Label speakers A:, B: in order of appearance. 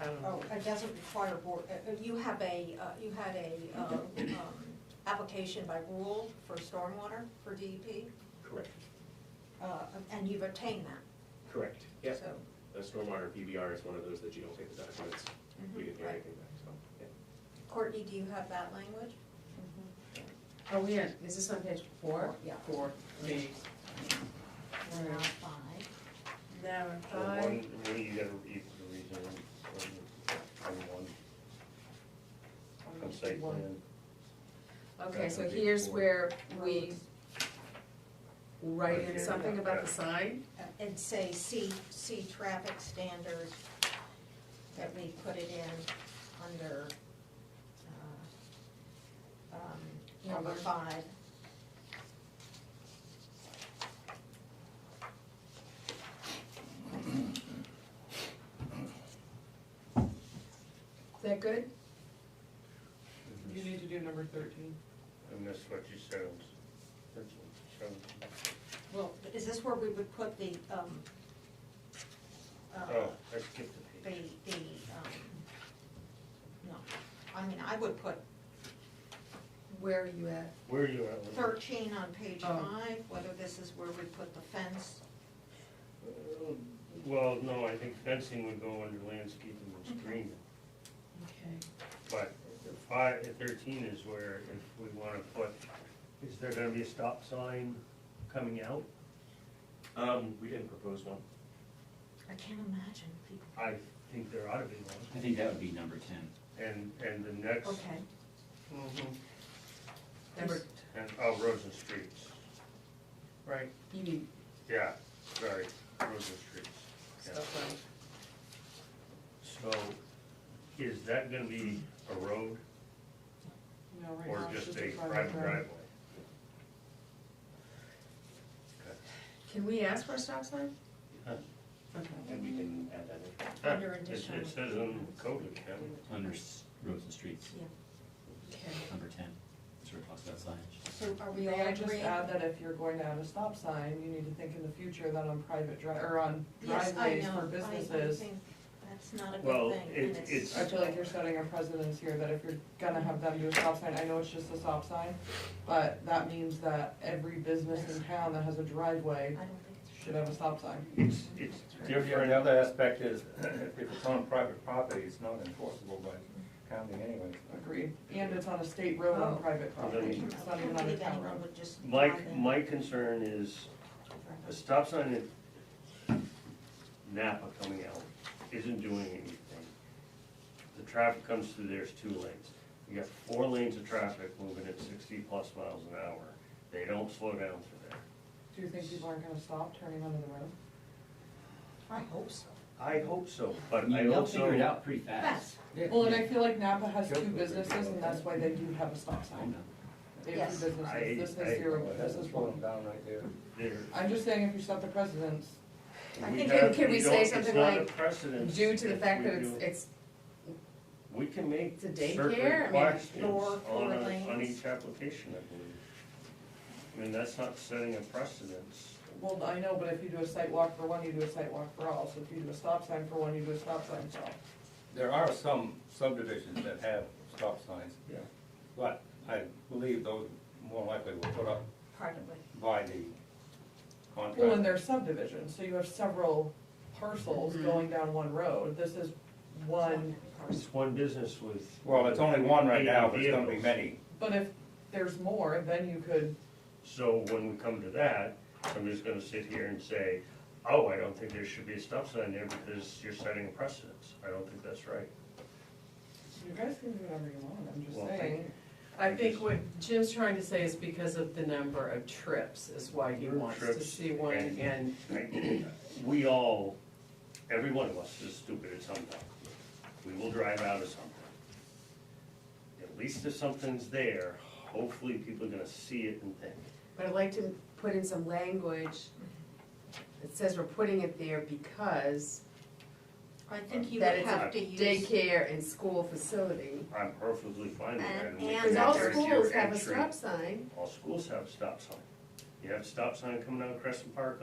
A: I don't
B: Oh,
A: know.
B: it doesn't require board, uh, uh, you have a, uh, you had a, uh, um, application by rule for stormwater for DEP,
C: Correct,
B: uh, and you've obtained that,
C: correct, yes.
B: so.
C: A stormwater PBR is one of those that you don't take the documents, we
B: Mhm,
C: didn't hear
B: right.
C: anything back, so, yeah.
B: Courtney, do you have that language?
A: Oh, yeah, is this on page four?
B: Yeah.
A: Four, the,
B: We're now five.
A: now in
D: So one,
A: five,
D: one, you gotta read the reason, on one, on site
A: One.
D: plan.
A: okay, so
D: That's a big
A: here's
D: four.
A: where we write
D: Right
A: in
D: here,
A: something about
D: yeah.
A: the sign,
B: Uh, And say C, C traffic standards, that we put it in under, uh, um, number
A: Number.
B: five.
A: is that good? You need to do number thirteen.
D: And that's what you said, it was- that's what you said.
B: Well, is this where we would put the, um, uh,
D: Oh, I skipped the
B: the,
D: page.
B: the, um, no, I mean, I would put
A: Where are you at?
D: Where are you at? with it?
B: thirteen on page
A: Oh.
B: five, whether this is where we put the fence.
D: Uh, Well, no, I think fencing would go under landscaping and screening,
A: Okay.
D: but five, thirteen is where if we wanna put, is there gonna be a stop sign coming out?
C: Um, we didn't propose one.
B: I can't imagine people,
D: I think there ought to be one,
E: I think that would be number ten.
D: and, and the next,
B: okay,
A: Number,
D: and, oh, Rosen Streets,
A: right, you mean,
D: yeah, sorry, Rosen Streets. Yeah.
A: stuff like.
D: So, is that gonna be a road
A: No, right
D: or
A: now it's
D: just a private driveway?
A: Can we ask for a stop sign?
D: Huh.
A: Okay.
C: And we can add that in.
B: under
D: It
B: additional.
D: it says on the code it can.
E: Under s- roads and streets,
A: Okay.
E: number ten, that's where it talks about signage.
B: So are we all
F: May I just
B: agreeing?
F: add that if you're going to have a stop sign, you need to think in the future that on private dri, or on
B: Yes, I
F: driveways
B: know.
F: for
B: I- I
F: businesses.
B: think That's not a
D: Well,
B: good thing,
D: it-
B: and it's.
D: it's-
F: I feel like you're setting a precedence here that if you're gonna have them do a stop sign, I know it's just a stop sign, but that means that every business in town that has a
B: I
F: driveway
B: don't think it's.
F: should have a stop sign.
D: It's, it's
G: The
D: different,
G: other aspect is, if it's on private property, it's not enforceable by county anyways.
F: Agreed. And it's on a state road
B: Oh.
F: on private property,
B: I
F: it's
B: can't
F: not even on a
B: believe
F: town
B: anyone
F: road.
B: would just.
D: my,
B: drive in
D: my concern is
B: for
D: a
B: a-
D: stop sign at Napa coming out isn't doing anything. The traffic comes through, there's two lanes. You got four lanes of traffic moving at sixty plus miles an hour. They don't slow down through there.
F: Do you think people aren't gonna stop turning onto the road?
B: I hope so.
D: I hope so, but I
E: They'll
D: also.
E: figure it out pretty fast.
B: Yes,
F: Well, and I feel like Napa has
G: Joke
F: two
G: would be
F: businesses and that's why they do have a stop
E: I
F: sign.
E: know.
F: They have two
D: I-
F: businesses, this
D: I-
F: is zero,
G: Well,
F: this
G: That's
F: is
G: just
F: one.
G: one down right there.
D: There,
F: I'm just saying if you set the precedence,
A: I
D: we
A: think-
D: have-
A: can we say
D: don't-
A: something
D: It's
A: like,
D: not a precedence.
A: Due to the
D: if
A: fact
D: we
A: that it's,
D: do-
A: it's,
D: We can make
A: it's a
D: certain
A: daycare, I mean,
D: questions
B: four- four
D: on, a- on
B: lanes.
D: each application, I believe. I mean, that's not setting a precedence.
F: well, I know, but if you do a site walk for one, you do a site walk for all, so if you do a stop sign for one, you do a stop sign for all.
G: There are some subdivisions that have stop signs.
D: Yeah.
G: But I believe those more likely were put up
B: probably.
G: by the
F: Well, and
G: contractor.
F: they're subdivisions, so you have several parcels going down one road, this is one,
D: It's one business with.
G: Well, it's only one right now, but it's gonna be
D: vehicles.
G: many.
F: but if there's more, then you could,
D: So when we come to that, somebody's gonna sit here and say, oh, I don't think there should be a stop sign there because you're setting a precedence. I don't think that's right.
F: you guys can do whatever you want, I'm just
D: Well, thank
F: saying.
A: I think what Jim's trying to say is because of the number of trips is why he
D: Number of
A: wants to
D: trips
A: see one
D: and-
A: and
D: We all, every one of us is stupid at some time. We will drive out of something. At least if something's there, hopefully people are gonna see it and think.
H: But I'd like to put in some language that says we're putting it there because
B: I think you
H: that
B: would
H: it's
B: have to
H: a
B: use.
H: daycare and school facility.
D: I'm perfectly fine with that.
B: And-
D: we can
B: and
H: Because all
D: make that
B: there's
D: as your
H: schools have a
D: entry.
H: stop sign.
D: All schools have a stop sign. You have a stop sign coming out of Crescent Park